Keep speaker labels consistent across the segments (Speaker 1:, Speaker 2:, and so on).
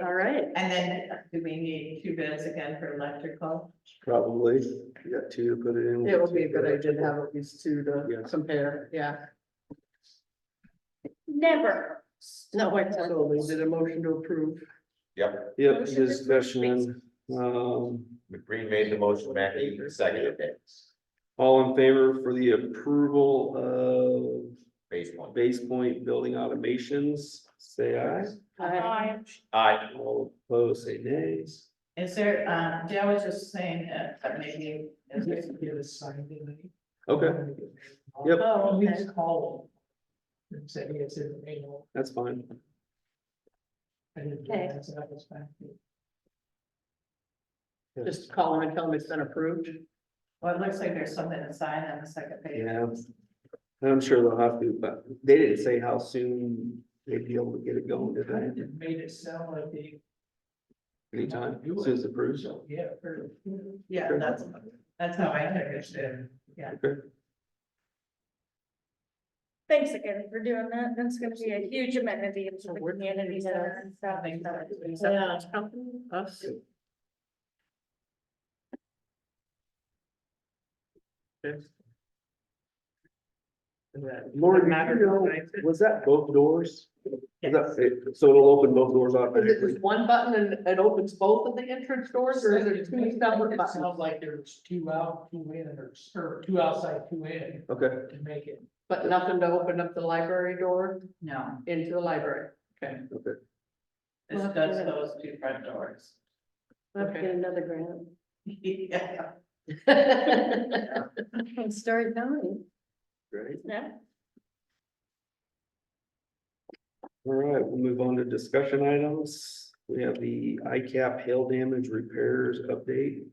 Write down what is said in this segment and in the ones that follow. Speaker 1: All right,
Speaker 2: And then do we need two bids again for electrical?
Speaker 3: Probably, you got two to put it in.
Speaker 4: It would be a good idea to have at least two
Speaker 3: Yeah.
Speaker 4: to compare, yeah.
Speaker 1: never. No, wait, sorry.
Speaker 4: So is it a motion to approve?
Speaker 5: Yep,
Speaker 3: Yep, discussion, um,
Speaker 5: McBreen made the motion, Mackey seconded it,
Speaker 3: all in favor for the approval
Speaker 5: phase one.
Speaker 3: of Base Point Building Automations, say aye.
Speaker 1: Aye.
Speaker 5: Aye,
Speaker 3: All opposed, say nays.
Speaker 2: Is there, um, Joe was just saying that that maybe. is there-
Speaker 3: Okay, Yep.
Speaker 2: Oh, okay.
Speaker 4: call them. And say, it's in the mail.
Speaker 3: that's fine.
Speaker 1: Oh, Okay.
Speaker 4: Just call them and tell them it's been approved.
Speaker 2: Well, it looks like there's something inside on the second page.
Speaker 3: Yeah. And I'm sure they'll have to, but they didn't say how soon they'd be able to get it going, did they?
Speaker 4: made it sound like they.
Speaker 3: Anytime, soon as approved.
Speaker 4: Yeah.
Speaker 2: Yeah, that's, that's how I understood. Yeah.
Speaker 3: Okay.
Speaker 1: Thanks again for doing that. That's gonna be a huge amenity to the
Speaker 4: We're-
Speaker 1: community center and stuff.
Speaker 4: Yeah, it's company, us.
Speaker 3: Lori, you know, was that both doors? Was that- it- So it'll open both doors
Speaker 4: Is it
Speaker 3: automatically?
Speaker 4: just one button and it opens both of the entrance doors or is it two separate
Speaker 6: It
Speaker 4: buttons?
Speaker 6: sounds like there's two out, two in, or, or two outside, two in,
Speaker 3: Okay,
Speaker 6: to make it.
Speaker 4: But nothing to open up the library door
Speaker 2: No,
Speaker 4: into the library? Okay.
Speaker 3: okay.
Speaker 2: this does those two front doors.
Speaker 4: Let's get
Speaker 1: another grant.
Speaker 2: Yeah.
Speaker 1: And start knowing.
Speaker 3: Great.
Speaker 1: Yeah.
Speaker 3: All right, we'll move on to discussion items. We have the ICAP hail damage repairs update.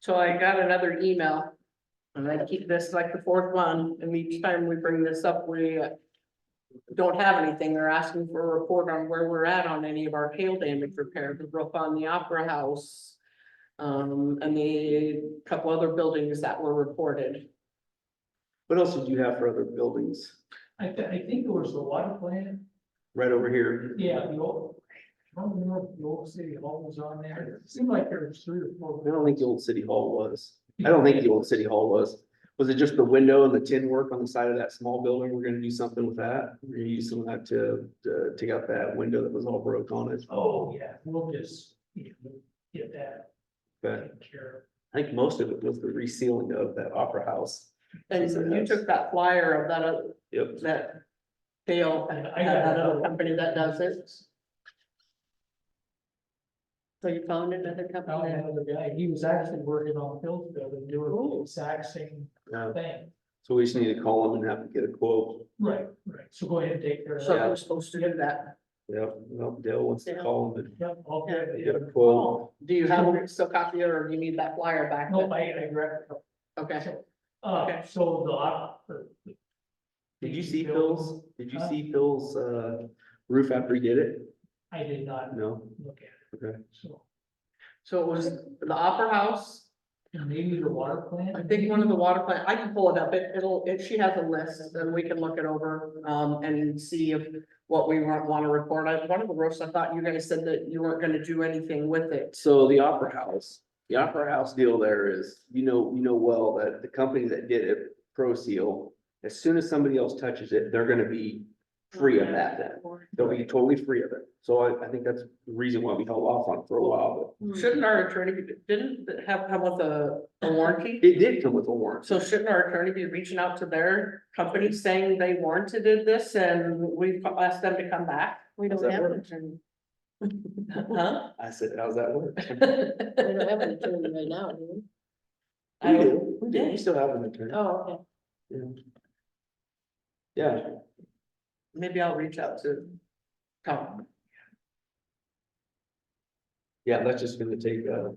Speaker 4: So I got another email. And I keep this like the fourth one, and each time we bring this up, we. uh, Don't have anything. They're asking for a report on where we're at on any of our hail damage repair, the roof on the Opera House. Um, and the couple other buildings that were reported.
Speaker 3: What else did you have for other buildings?
Speaker 6: I thi- I think it was the water plant,
Speaker 3: Right over here.
Speaker 6: yeah, the old, I don't remember if the old city hall was on there, it seemed like there was three or four.
Speaker 3: I don't think the old city hall was. I don't think the old city hall was. Was it just the window and the tin work on the side of that small building? We're gonna do something with that? We're gonna use some of that to, to take out that window that was all broke on it.
Speaker 6: Oh, yeah, we'll just, you know, get that
Speaker 3: But
Speaker 6: taken care
Speaker 3: I think most of it was the resealing of that opera house.
Speaker 4: And so you took that flyer of that, uh,
Speaker 3: Yep.
Speaker 4: that. Fail,
Speaker 6: of. And I got
Speaker 4: that
Speaker 6: another
Speaker 4: other
Speaker 6: one.
Speaker 4: company that does it.
Speaker 1: So you found another
Speaker 6: I found another guy, he was actually working on Phil's building, doing the exact same
Speaker 3: Uh,
Speaker 6: thing.
Speaker 3: So we just need to call them and have to get a quote.
Speaker 6: Right, right, so go ahead and take care of
Speaker 4: So
Speaker 6: that.
Speaker 4: we're supposed to do that.
Speaker 3: Yep, well, Dale wants to call them
Speaker 6: Yep, I'll get
Speaker 3: and
Speaker 6: it.
Speaker 3: get a quote.
Speaker 4: Do you have a still copy or do you need that flyer back?
Speaker 6: Nope, I, I grabbed it.
Speaker 4: Okay.
Speaker 6: Uh, so the, op-
Speaker 3: Did you see Phil's, did you see Phil's, uh, roof after he did it?
Speaker 6: I did not
Speaker 3: No?
Speaker 6: look at it.
Speaker 3: Okay.
Speaker 6: So,
Speaker 4: So it was the Opera House,
Speaker 6: and maybe the water plant?
Speaker 4: I think one of the water plant, I can pull it up, it, it'll, if she has a list, then we can look it over, um, and see if. What we want, wanna report, I, one of the roofs, I thought you guys said that you weren't gonna do anything with it,
Speaker 3: So the Opera House, the Opera House deal there is, you know, you know well that the company that did it, Pro Seal, as soon as somebody else touches it, they're gonna be free of that then. They'll be totally free of it. So I, I think that's the reason why we held off on it for a while,
Speaker 4: shouldn't our attorney, be- didn't it have, come with a, a warranty?
Speaker 3: but it did come with a warranty.
Speaker 4: So shouldn't our attorney be reaching out to their company saying they warranted this and we've asked them to come back?
Speaker 1: We
Speaker 3: Does
Speaker 1: don't
Speaker 3: that
Speaker 1: have an
Speaker 3: work?
Speaker 1: attorney.
Speaker 4: Huh?
Speaker 3: I said, how's that work?
Speaker 1: We don't have an attorney right now, do
Speaker 4: I
Speaker 3: We
Speaker 4: don't-
Speaker 3: do, we do, we still have an
Speaker 1: we?
Speaker 3: attorney.
Speaker 1: Oh, okay.
Speaker 3: Yeah,
Speaker 4: Maybe I'll reach out to Tom.
Speaker 3: yeah, that's just gonna take, uh,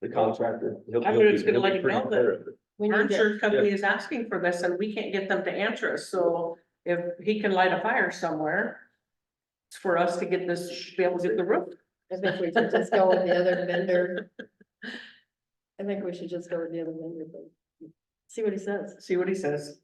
Speaker 3: the contractor. He'll-
Speaker 4: I
Speaker 3: he'll
Speaker 4: would
Speaker 3: be-
Speaker 4: just gonna
Speaker 3: he'll be
Speaker 4: let him
Speaker 3: free
Speaker 4: know
Speaker 3: of
Speaker 4: that-
Speaker 3: it.
Speaker 1: We
Speaker 4: Our
Speaker 1: need to,
Speaker 4: insurance company is asking for this and we can't get them to answer us, so if he can light a fire somewhere. It's for us to get this, be able to get the roof.
Speaker 1: I think we should just go with the other vendor. I think we should just go with the other vendor, but see what he says.
Speaker 4: See what he says.